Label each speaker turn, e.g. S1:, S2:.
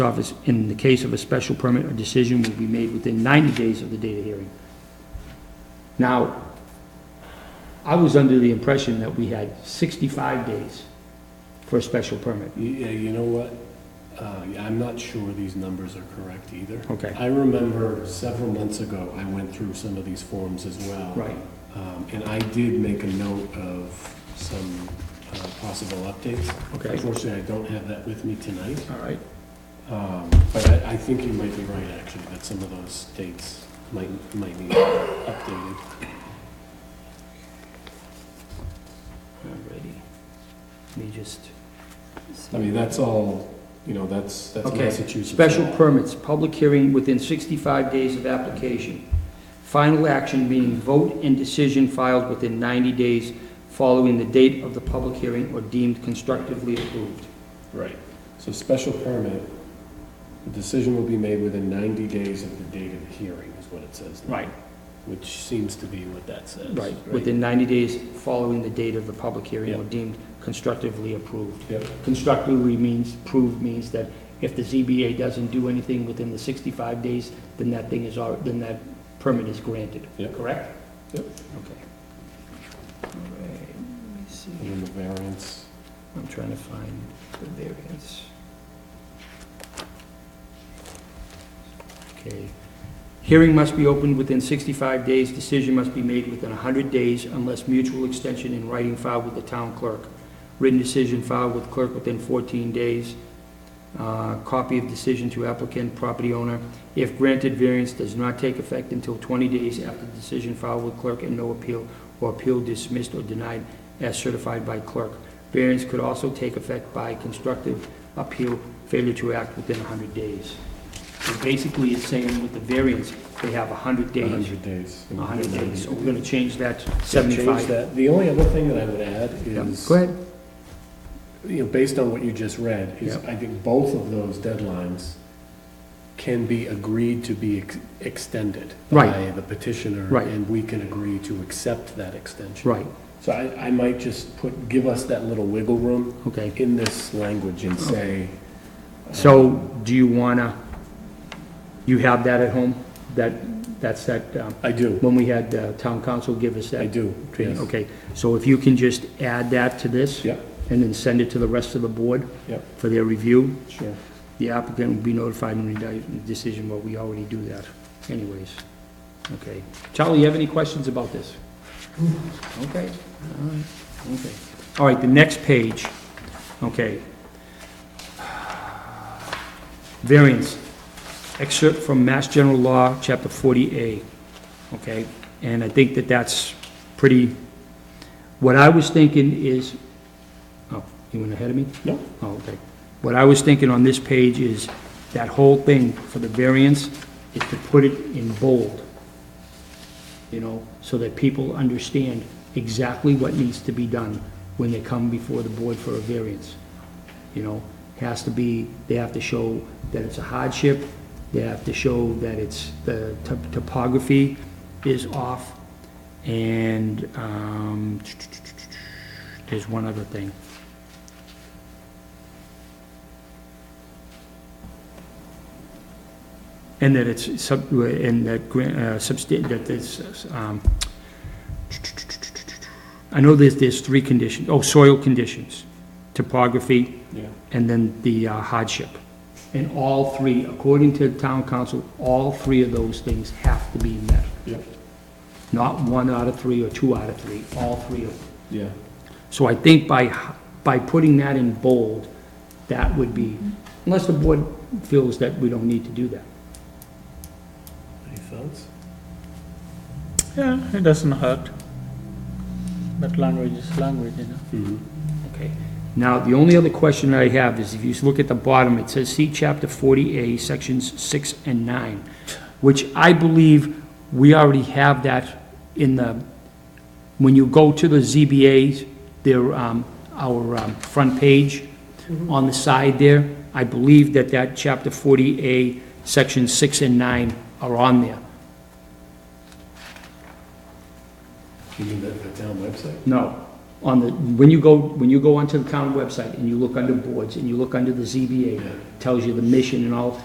S1: office in the case of a special permit or decision will be made within 90 days of the date of hearing. Now, I was under the impression that we had 65 days for a special permit.
S2: Yeah, you know what? Uh, yeah, I'm not sure these numbers are correct either.
S1: Okay.
S2: I remember several months ago, I went through some of these forms as well.
S1: Right.
S2: Um, And I did make a note of some uh, possible updates.
S1: Okay.
S2: Unfortunately, I don't have that with me tonight,
S1: All right.
S2: Um, but I I think you might be right, actually, that some of those dates might, might be updated.
S1: Alrighty. Let me just.
S2: I mean, that's all, you know, that's, that's
S1: Okay.
S2: Massachusetts.
S1: Special
S2: law.
S1: permits, public hearing within 65 days of application. Final action meaning vote and decision filed within 90 days following the date of the public hearing or deemed constructively approved.
S2: Right. So special permit, the decision will be made within 90 days of the date of the hearing, is what it says.
S1: Right.
S2: Which seems to be what that says.
S1: Right, within 90 days following the date of the public hearing or
S2: Yeah.
S1: deemed constructively approved.
S2: Yep,
S1: Constructively means, approved means that if the ZBA doesn't do anything within the 65 days, then that thing is, al- then that permit is granted.
S2: Yeah.
S1: Correct?
S2: Yep.
S1: Okay. All right, let me see.
S2: and then the variance.
S1: I'm trying to find the variance. Okay. Hearing must be opened within 65 days, decision must be made within 100 days unless mutual extension in writing filed with the town clerk. Written decision filed with clerk within 14 days. Uh, Copy of decision to applicant, property owner. If granted, variance does not take effect until 20 days after decision filed with clerk and no appeal or appeal dismissed or denied as certified by clerk. Variance could also take effect by constructive appeal, failure to act within 100 days. So basically, it's saying with the variance, they have 100 days,
S2: 100 days.
S1: 100 days. So we're going to change that to
S2: Change
S1: 75.
S2: that. The only other thing that I would add
S1: Yeah,
S2: is.
S1: Go ahead.
S2: you know, based on what you just read, is
S1: Yep.
S2: I think both of those deadlines can be agreed to be ex- extended by
S1: Right.
S2: the petitioner.
S1: Right.
S2: And we can agree to accept that extension.
S1: Right,
S2: So I, I might just put, give us that little wiggle room
S1: okay.
S2: in this language and say.
S1: So do you want to, you have that at home? That, that's that, um,
S2: I do,
S1: when we had uh, town council give us
S2: I
S1: that
S2: do,
S1: training?
S2: yes.
S1: Okay, so if you can just add that to this?
S2: Yep,
S1: And then send it to the rest of the board
S2: yep,
S1: for their review?
S2: sure.
S1: The applicant will be notified when the decision, but we already do that anyways. Okay. Charlie, you have any questions about this? Okay. All right. Okay. All right, the next page, okay. Variance, excerpt from Mass General Law, Chapter 40A, okay? And I think that that's pretty, what I was thinking is, oh, you went ahead of me?
S2: No,
S1: Oh, okay. What I was thinking on this page is that whole thing for the variance is to put it in bold, you know, so that people understand exactly what needs to be done when they come before the board for a variance. You know, has to be, they have to show that it's a hardship, they have to show that it's, the to- topography is off, and, um, there's one other thing. And that it's sub, and that, gran- uh, substan, that it's, um, I know there's, there's three conditions, oh, soil conditions, topography,
S2: yeah,
S1: and then the uh, hardship. And all three, according to town council, all three of those things have to be met.
S2: yep,
S1: Not one out of three or two out of three, all three of them.
S2: yeah.
S1: So I think by, by putting that in bold, that would be, unless the board feels that we don't need to do that.
S2: Any thoughts?
S3: Yeah, it doesn't hurt. But language is language, you know.
S2: Mhm.
S1: Okay. Mm-hmm. Now, the only other question I have is if you look at the bottom, it says, see chapter 40A, sections 6 and 9, which I believe we already have that in the, when you go to the ZBA's, their, um, our um, front page, on the side there, I believe that that chapter 40A, sections 6 and 9 are on there.
S2: You mean the, the town website?
S1: No, on the, when you go, when you go onto the county website and you look under boards and you look under the ZBA, tells you the mission and all,